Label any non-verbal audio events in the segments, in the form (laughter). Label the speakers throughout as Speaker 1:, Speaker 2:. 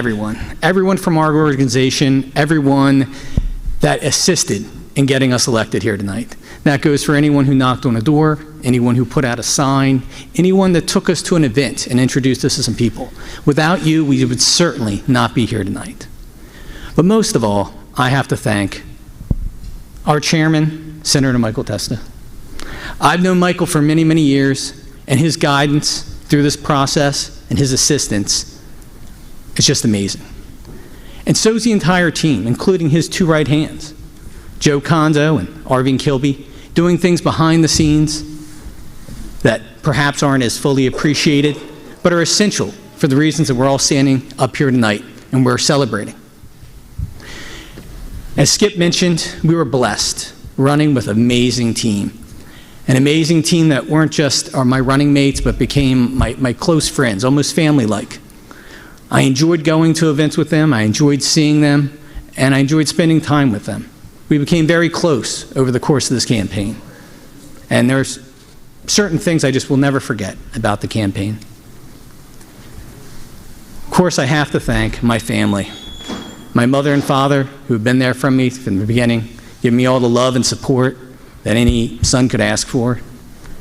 Speaker 1: everyone, everyone from our organization, everyone that assisted in getting us elected here tonight. That goes for anyone who knocked on a door, anyone who put out a sign, anyone that took us to an event and introduced us to some people. Without you, we would certainly not be here tonight. But most of all, I have to thank our chairman, Senator Michael Testa. I've known Michael for many, many years, and his guidance through this process and his assistance is just amazing. And so's the entire team, including his two right hands, Joe Kondo and Arvin Kilby, doing things behind the scenes that perhaps aren't as fully appreciated, but are essential for the reasons that we're all standing up here tonight and we're celebrating. As Skip mentioned, we were blessed running with an amazing team. An amazing team that weren't just are my running mates, but became my, my close friends, almost family like. I enjoyed going to events with them, I enjoyed seeing them, and I enjoyed spending time with them. We became very close over the course of this campaign. And there's certain things I just will never forget about the campaign. Of course, I have to thank my family, my mother and father, who have been there for me from the beginning, giving me all the love and support that any son could ask for.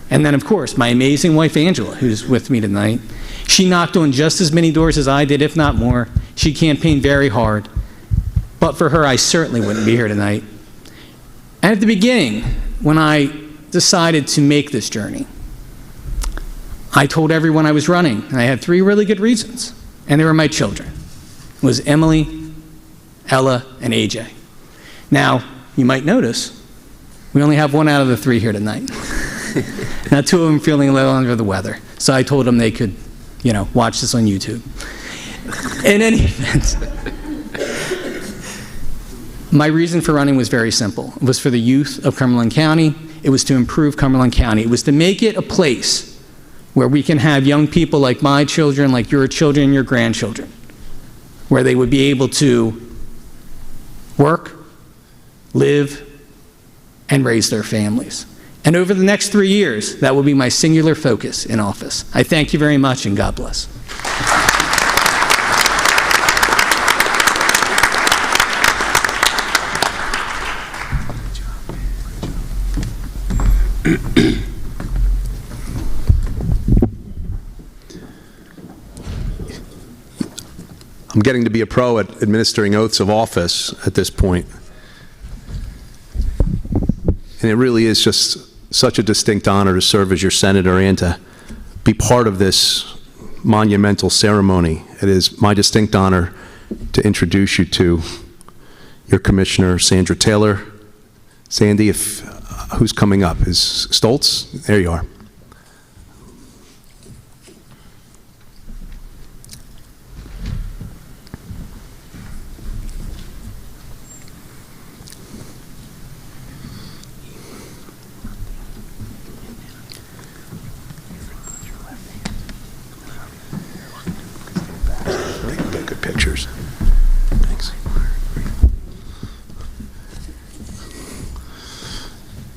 Speaker 1: And then, of course, my amazing wife Angela, who's with me tonight. She knocked on just as many doors as I did, if not more. She campaigned very hard. But for her, I certainly wouldn't be here tonight. And at the beginning, when I decided to make this journey, I told everyone I was running, and I had three really good reasons, and they were my children. It was Emily, Ella, and AJ. Now, you might notice, we only have one out of the three here tonight. (laughs) now, two of them feeling a little under the weather, so I told them they could, you know, watch this on YouTube. In any (laughs) event, my reason for running was very simple. It was for the youth of Cumberland County. It was to improve Cumberland County. It was to make it a place where we can have young people like my children, like your children, your grandchildren, where they would be able to work, live, and raise their families. And over the next three years, that will be my singular focus in office. I thank you very much, and God bless.
Speaker 2: I'm getting to be a pro at administering oaths of office at this point. And it really is just such a distinct honor to serve as your senator and to be part of this monumental ceremony. It is my distinct honor to introduce you to your commissioner, Sandra Taylor. Sandy, if, who's coming up? Is Stoltz? There you are. Good pictures. Thanks.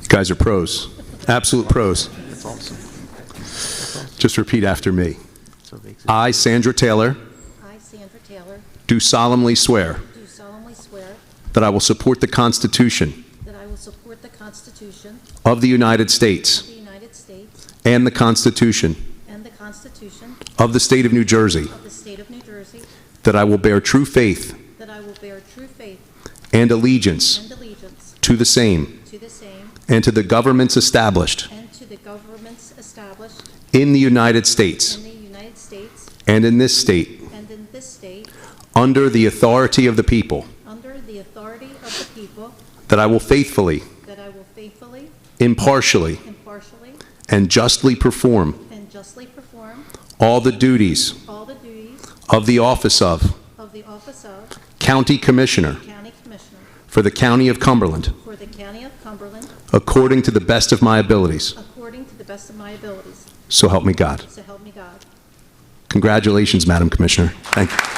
Speaker 2: Guys are pros, absolute pros.
Speaker 3: That's awesome. That's awesome.
Speaker 2: Just repeat after me.
Speaker 3: So big.
Speaker 2: I, Sandra Taylor,
Speaker 4: I, Sandra Taylor,
Speaker 2: do solemnly swear
Speaker 4: do solemnly swear
Speaker 2: that I will support the Constitution
Speaker 4: that I will support the Constitution
Speaker 2: of the United
Speaker 4: of
Speaker 2: States
Speaker 4: the United States
Speaker 2: and the Constitution
Speaker 4: and the Constitution
Speaker 2: of the State of New Jersey,
Speaker 4: of the State of New Jersey,
Speaker 2: that I will bear true faith
Speaker 4: that I will bear true faith
Speaker 2: and allegiance
Speaker 4: and allegiance
Speaker 2: to the same
Speaker 4: to the same
Speaker 2: and to the governments established
Speaker 4: and to the governments established
Speaker 2: in the United States
Speaker 4: in the United States
Speaker 2: and in this state
Speaker 4: and in this state
Speaker 2: under the authority of the people,
Speaker 4: under the authority of the people,
Speaker 2: that I will faithfully,
Speaker 4: that I will faithfully,
Speaker 2: impartially,
Speaker 4: impartially,
Speaker 2: and justly perform
Speaker 4: and justly perform
Speaker 2: all the duties
Speaker 4: all the duties
Speaker 2: of the office of
Speaker 4: of the office of
Speaker 2: County Commissioner
Speaker 4: County Commissioner
Speaker 2: for the County of Cumberland,
Speaker 4: for the County of Cumberland
Speaker 2: according to the best of my abilities.
Speaker 4: according to the best of my abilities.
Speaker 2: So help me God.
Speaker 4: So help me God.
Speaker 2: Congratulations, Madam Commissioner. Thank you.